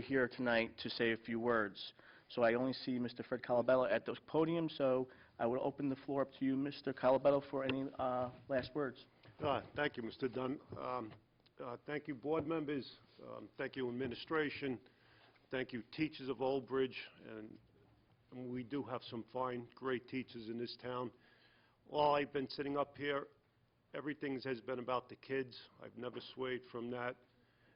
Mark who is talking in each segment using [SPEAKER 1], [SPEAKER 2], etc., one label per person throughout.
[SPEAKER 1] here tonight to say a few words. So I only see Mr. Fred Calabello at the podium, so I will open the floor up to you, Mr. Calabello, for any uh, last words.
[SPEAKER 2] Uh, Thank you, Mr. Dunn. Um, uh, Thank you, board members. Um, Thank you, administration. Thank you, teachers of Old Bridge. And and we do have some fine, great teachers in this town. While I've been sitting up here, everything has been about the kids. I've never swayed from that.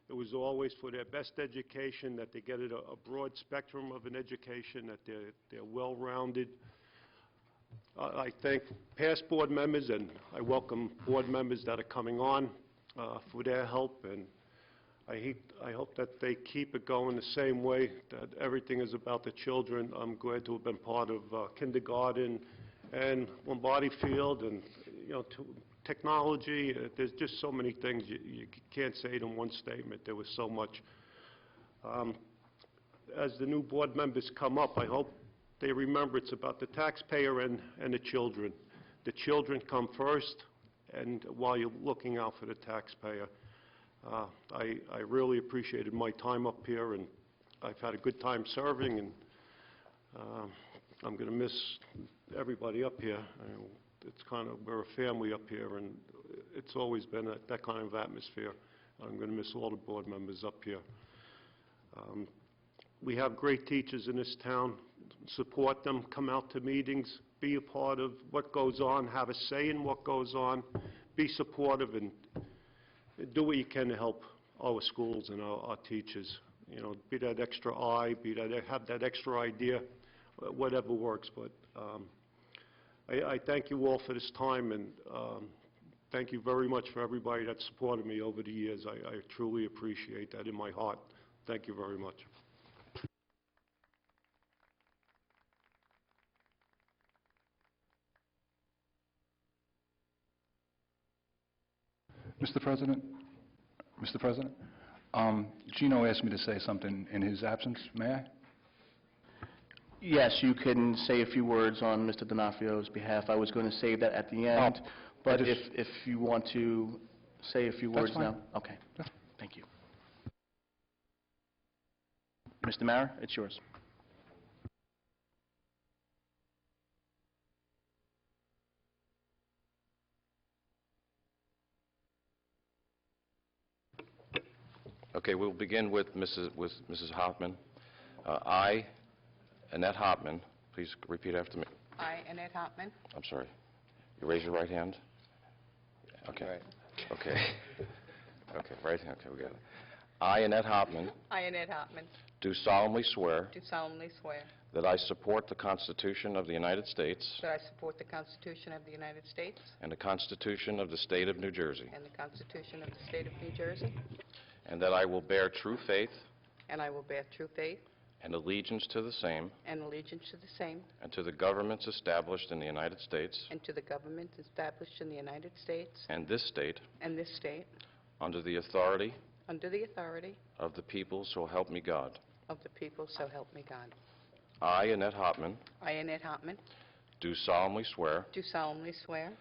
[SPEAKER 2] It was always for their best education, that they get a a broad spectrum of an education, that they're they're well-rounded. I I thank past board members, and I welcome board members that are coming on uh, for their help, and I hate- I hope that they keep it going the same way, that everything is about the children. I'm glad to have been part of uh, kindergarten and Lombardi Field, and, you know, to- technology, uh, there's just so many things, you- you can't say it in one statement, there was so much. Um, as the new board members come up, I hope they remember it's about the taxpayer and, and the children. The children come first, and while you're looking out for the taxpayer. Uh, I, I really appreciated my time up here, and I've had a good time serving, and um, I'm going to miss everybody up here. I- It's kind of, we're a family up here, and it's always been that that kind of atmosphere. I'm going to miss all the board members up here. Um, we have great teachers in this town. Support them, come out to meetings, be a part of what goes on, have a say in what goes on, be supportive, and do what you can to help our schools and our our teachers. You know, be that extra eye, be that, have that extra idea, wh- whatever works. But um, I I thank you all for this time, and um, thank you very much for everybody that supported me over the years. I I truly appreciate that in my heart. Thank you very much.
[SPEAKER 3] Mr. President? Mr. President? Um, Gino asked me to say something in his absence. May I?
[SPEAKER 1] Yes, you can say a few words on Mr. D'Onofrio's behalf. I was going to save that at the end, but if,
[SPEAKER 3] just-
[SPEAKER 1] if you want to say a few
[SPEAKER 3] That's
[SPEAKER 1] words
[SPEAKER 3] fine.
[SPEAKER 1] now. Okay,
[SPEAKER 3] Yeah.
[SPEAKER 1] thank you. Mr. Mara, it's yours.
[SPEAKER 4] Okay, we'll begin with Mrs. with Mrs. Hoffman. Uh, I, Annette Hoffman, please repeat after me.
[SPEAKER 5] I, Annette Hartman,
[SPEAKER 4] I'm sorry. You raise your right hand? Okay. Okay. Okay, right hand, okay, we got it. I, Annette Hoffman,
[SPEAKER 5] I, Annette Hartman,
[SPEAKER 4] do solemnly swear
[SPEAKER 5] do solemnly swear
[SPEAKER 4] that I support the Constitution of the United States
[SPEAKER 5] that I support the Constitution of the United States
[SPEAKER 4] and the Constitution of the State of New Jersey,
[SPEAKER 5] and the Constitution of the State of New Jersey,
[SPEAKER 4] and that I will bear true faith
[SPEAKER 5] and I will bear true faith
[SPEAKER 4] and allegiance to the same
[SPEAKER 5] and allegiance to the same
[SPEAKER 4] and to the governments established in the United States
[SPEAKER 5] and to the governments established in the United States
[SPEAKER 4] and this state
[SPEAKER 5] and this state,
[SPEAKER 4] under the authority
[SPEAKER 5] under the authority
[SPEAKER 4] of the people, so help me God.
[SPEAKER 5] of the people, so help me God.
[SPEAKER 4] I, Annette Hopman,
[SPEAKER 5] I, Annette Hartman,
[SPEAKER 4] do solemnly swear
[SPEAKER 5] do solemnly swear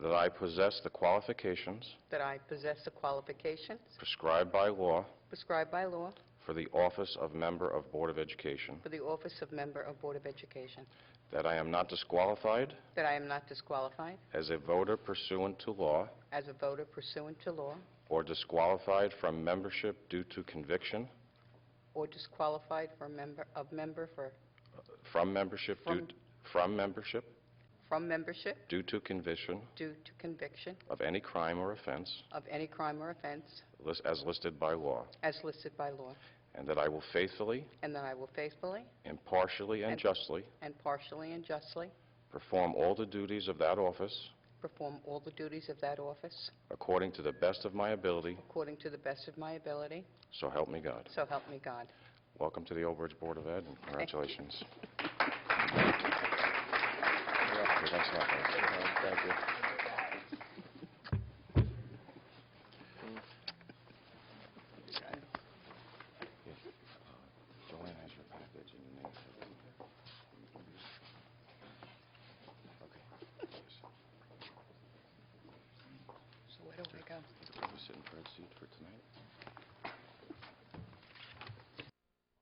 [SPEAKER 4] that I possess the qualifications
[SPEAKER 5] that I possess the qualifications
[SPEAKER 4] prescribed by law
[SPEAKER 5] prescribed by law
[SPEAKER 4] for the office of Member of Board of Education,
[SPEAKER 5] for the office of Member of Board of Education,
[SPEAKER 4] that I am not disqualified
[SPEAKER 5] that I am not disqualified
[SPEAKER 4] as a voter pursuant to law
[SPEAKER 5] as a voter pursuant to law
[SPEAKER 4] or disqualified from membership due to conviction,
[SPEAKER 5] or disqualified for member, of member for,
[SPEAKER 4] from membership due,
[SPEAKER 5] From-
[SPEAKER 4] from membership
[SPEAKER 5] from membership
[SPEAKER 4] due to conviction
[SPEAKER 5] due to conviction
[SPEAKER 4] of any crime or offense
[SPEAKER 5] of any crime or offense
[SPEAKER 4] lis- as listed by law,
[SPEAKER 5] as listed by law,
[SPEAKER 4] and that I will faithfully,
[SPEAKER 5] and that I will faithfully
[SPEAKER 4] impartially, and
[SPEAKER 5] And-
[SPEAKER 4] justly
[SPEAKER 5] and partially and justly
[SPEAKER 4] perform all the duties of that office
[SPEAKER 5] perform all the duties of that office
[SPEAKER 4] according to the best of my ability,
[SPEAKER 5] according to the best of my ability,
[SPEAKER 4] so help me God.
[SPEAKER 5] so help me God.
[SPEAKER 4] Welcome to the Old Bridge Board of Ed, and congratulations. Yeah, thanks a lot, guys. uh,